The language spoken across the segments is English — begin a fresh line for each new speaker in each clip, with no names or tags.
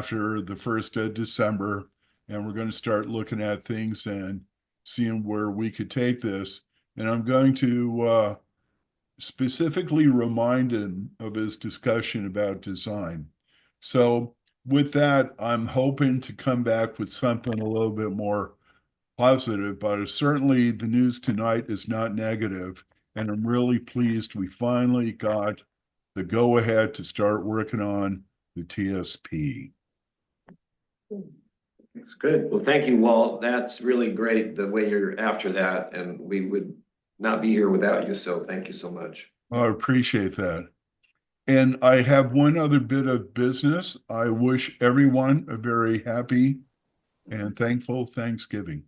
after the first of December. And we're going to start looking at things and seeing where we could take this. And I'm going to uh, specifically remind him of his discussion about design. So with that, I'm hoping to come back with something a little bit more positive, but certainly the news tonight is not negative, And I'm really pleased we finally got the go ahead to start working on the TSP.
That's good. Well, thank you, Walt. That's really great, the way you're after that, and we would not be here without you, so thank you so much.
I appreciate that. And I have one other bit of business. I wish everyone a very happy and thankful Thanksgiving.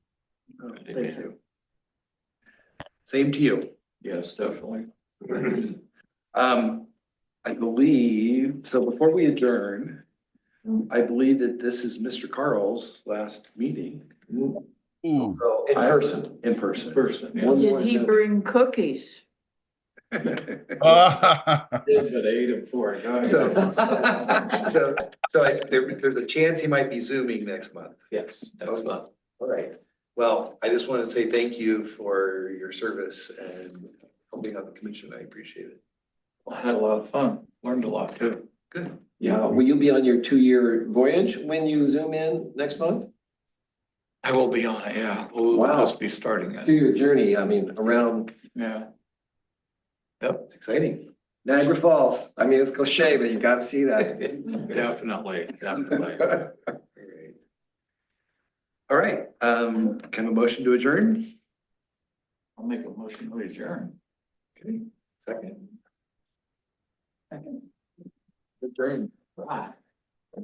Oh, Thank you.
Same to you.
Yes, definitely.
Um, I believe, so before we adjourn, I believe that this is Mr. Carl's last meeting.
Ooh,
So in person.
In person.
Person.
Did he bring cookies?
At eight and four. So, so, so I- there, there's a chance he might be zooming next month.
Yes.
next month. All right.
Well, I just wanted to say thank you for your service and helping out the commission. I appreciate it.
I had a lot of fun, learned a lot too.
Good.
Yeah, will you be on your two-year voyage when you zoom in next month?
I will be on it, yeah. We'll
Wow.
just be starting it,
Two-year journey, I mean, around
yeah.
It's exciting.
Niagara Falls. I mean, it's cliche, but you gotta see that.
Definitely, definitely.
All right, um, can I have a motion to adjourn?
I'll make a motion to adjourn.
Okay, second.
Second.
Adjourn.
Ah,